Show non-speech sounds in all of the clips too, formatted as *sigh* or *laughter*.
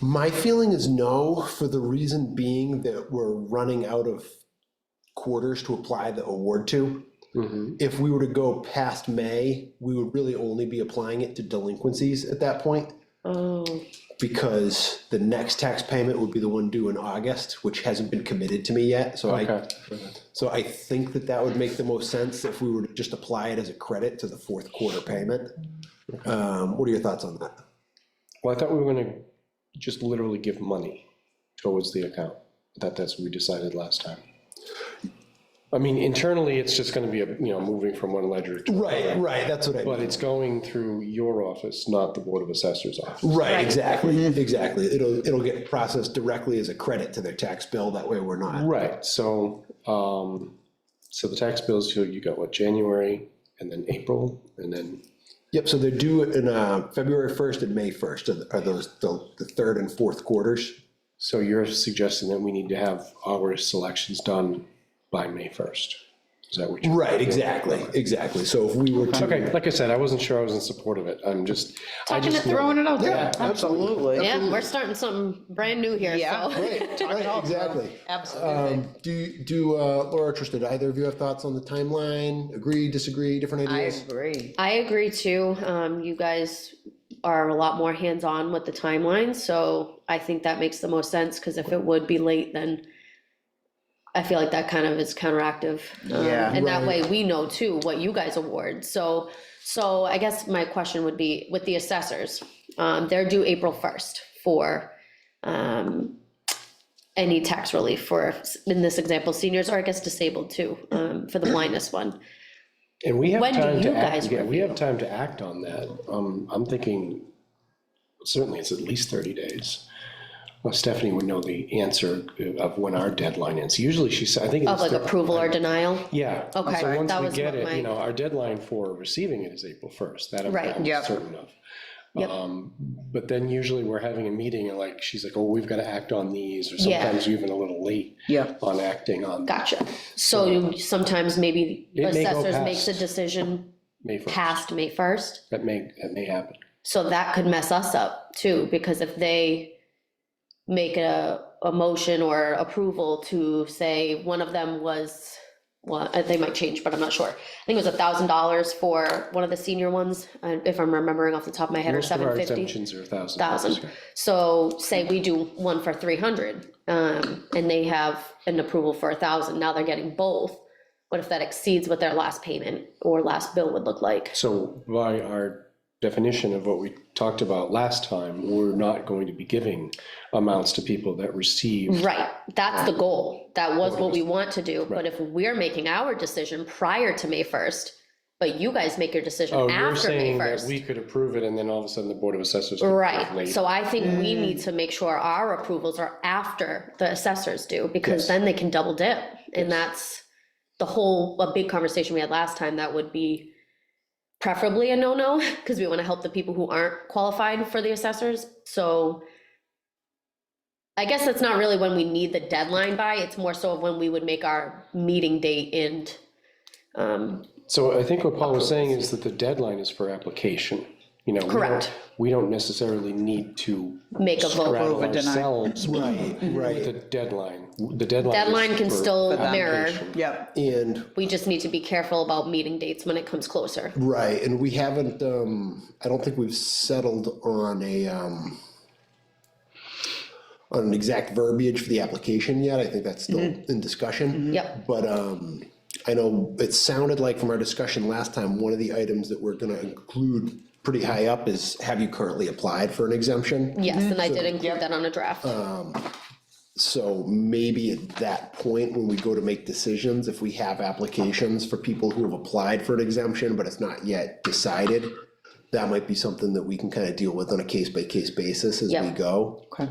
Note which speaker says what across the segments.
Speaker 1: My feeling is no, for the reason being that we're running out of quarters to apply the award to.
Speaker 2: Mhm.
Speaker 1: If we were to go past May, we would really only be applying it to delinquencies at that point
Speaker 2: Oh,
Speaker 1: because the next tax payment would be the one due in August, which hasn't been committed to me yet. So I,
Speaker 2: okay.
Speaker 1: so I think that that would make the most sense if we were to just apply it as a credit to the fourth quarter payment. Um, What are your thoughts on that?
Speaker 2: Well, I thought we were gonna just literally give money towards the account. That, that's what we decided last time. I mean, internally, it's just gonna be, a you know, moving from one ledger to.
Speaker 1: Right, right, that's what I
Speaker 2: But it's going through your office, not the Board of Assessors office.
Speaker 1: Right, Mm-hmm. exactly, exactly. It'll, it'll get processed directly as a credit to their tax bill. That way we're not.
Speaker 2: Right, so, um, so the tax bills, you, you got what, January and then April and then,
Speaker 1: Yep, so they're due in uh, February 1st and May 1st are the- are those, the the third and fourth quarters.
Speaker 2: so you're suggesting that we need to have our selections done by May first? Is that what you're?
Speaker 1: Right, exactly, exactly. So if we were to.
Speaker 2: Okay, like I said, I wasn't sure I was in support of it. I'm just, I
Speaker 3: Talking
Speaker 2: just.
Speaker 3: and throwing it out there.
Speaker 1: Absolutely.
Speaker 4: Yeah, we're starting something brand new here,
Speaker 3: Yeah.
Speaker 4: so.
Speaker 1: Right, right, exactly.
Speaker 3: Absolutely.
Speaker 1: Um, Do, you- do uh, Laura, or Tristan, do either of you have thoughts on the timeline? Agree, disagree, different
Speaker 3: I
Speaker 1: ideas?
Speaker 3: agree.
Speaker 4: I agree too. Um, you guys are a lot more hands-on with the timeline, so I think that makes the most sense, because if it would be late, then I feel like that kind of is counteractive. Um,
Speaker 3: Yeah.
Speaker 4: And that
Speaker 1: Right.
Speaker 4: way, we know too what you guys award, so, so I guess my question would be, with the assessors, um, they're due April first for, um, any tax relief for, in this example, seniors, or I guess disabled too, um, for the blindness one.
Speaker 2: And we have
Speaker 4: When do
Speaker 2: time to
Speaker 4: you
Speaker 2: act,
Speaker 4: guys
Speaker 2: yeah, we have time to act on that. Um, I'm thinking, certainly it's at least thirty days. Well, Stephanie would know the answer of when our deadline is. Usually she's, I think.
Speaker 4: Of
Speaker 2: it's
Speaker 4: like
Speaker 2: thir-
Speaker 4: approval or denial?
Speaker 2: Yeah.
Speaker 4: Okay,
Speaker 2: So once
Speaker 4: that
Speaker 2: we
Speaker 4: was
Speaker 2: get
Speaker 4: what
Speaker 2: it,
Speaker 4: my-
Speaker 2: you know, our deadline for receiving it is April first, that I'm
Speaker 4: Right.
Speaker 2: I'm
Speaker 3: Yep.
Speaker 2: certain of.
Speaker 4: Yep.
Speaker 2: Um, But then usually we're having a meeting and like, she's like, oh, we've got to act on these, or
Speaker 4: Yeah.
Speaker 2: sometimes even a little late
Speaker 3: Yeah.
Speaker 2: on acting on
Speaker 4: Gotcha. So you- sometimes maybe
Speaker 2: It may go
Speaker 4: assessors
Speaker 2: past.
Speaker 4: makes a decision
Speaker 2: May first.
Speaker 4: past May first.
Speaker 2: That may, that may happen.
Speaker 4: So that could mess us up too, because if they make a, a motion or approval to say one of them was, well, uh, they might change, but I'm not sure. I think it was a thousand dollars for one of the senior ones, uh, if I'm remembering off the top of my head, or
Speaker 2: Most of our
Speaker 4: seven fifty.
Speaker 2: exemptions are a thousand.
Speaker 4: Thousand. So say we do one for three hundred, um, and they have an approval for a thousand, now they're getting both. What if that exceeds what their last payment or last bill would look like?
Speaker 2: So by our definition of what we talked about last time, we're not going to be giving amounts to people that receive.
Speaker 4: Right, that's the goal, that was what we want to do, but if we're making our decision prior to May first, but you guys make your
Speaker 2: Oh,
Speaker 4: decision
Speaker 2: you're
Speaker 4: after May
Speaker 2: saying that
Speaker 4: first.
Speaker 2: we could approve it and then all of a sudden the Board of Assessors. could approve
Speaker 4: Right,
Speaker 2: late. Mm.
Speaker 4: so I think we need to make sure our approvals are after the assessors do, because
Speaker 2: Yes.
Speaker 4: then they can double dip. And that's the whole, a big conversation we had last time, that would be preferably a no-no, *laughs* because we want to help the people who aren't qualified for the assessors, so I guess that's not really when we need the deadline by, it's more so of when we would make our meeting date and, um,
Speaker 2: So I think what Paul was saying is that the deadline is for application, you know. we don't-
Speaker 4: Correct.
Speaker 2: We don't necessarily need to
Speaker 4: make a vote.
Speaker 2: rattle
Speaker 3: or deny.
Speaker 2: ourselves
Speaker 1: Right,
Speaker 2: with the
Speaker 1: right.
Speaker 2: deadline. The deadline. is
Speaker 4: Deadline can
Speaker 2: for
Speaker 4: still
Speaker 3: that
Speaker 4: mirror.
Speaker 2: application.
Speaker 3: Yep.
Speaker 1: And
Speaker 4: We just need to be careful about meeting dates when it comes closer.
Speaker 1: Right, and we haven't, um, I don't think we've settled on a, um, on an exact verbiage for the application yet, I think that's still in discussion.
Speaker 4: Yep.
Speaker 1: But, um, I know it sounded like from our discussion last time, one of the items that we're gonna include pretty high up is, have you currently applied for an exemption?
Speaker 4: Yes, and I did include that on a draft.
Speaker 1: So maybe at that point, when we go to make decisions, if we have applications for people who have applied for an exemption, but it's not yet decided, that might be something that we can kind of deal with on a case-by-case basis as we
Speaker 4: Yeah.
Speaker 1: go.
Speaker 3: Okay.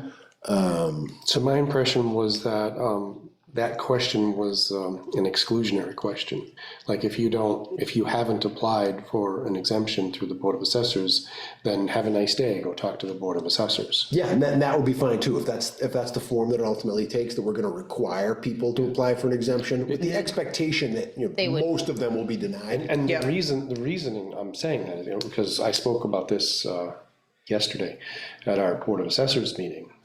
Speaker 2: So my impression was that, um, that question was, um, an exclusionary question. Like if you don't, if you haven't applied for an exemption through the Board of Assessors, then have a nice day, go talk to the Board of Assessors.
Speaker 1: Yeah, and that, and that would be fine too, if that's, if that's the form that it ultimately takes, that we're gonna require people to apply for an exemption with the expectation that, you know,
Speaker 4: would.
Speaker 1: most of them will be denied.
Speaker 2: And the
Speaker 3: Yeah.
Speaker 2: reason, the reasoning I'm saying that, you know, because I spoke about this, uh, yesterday at our Board of Assessors meeting.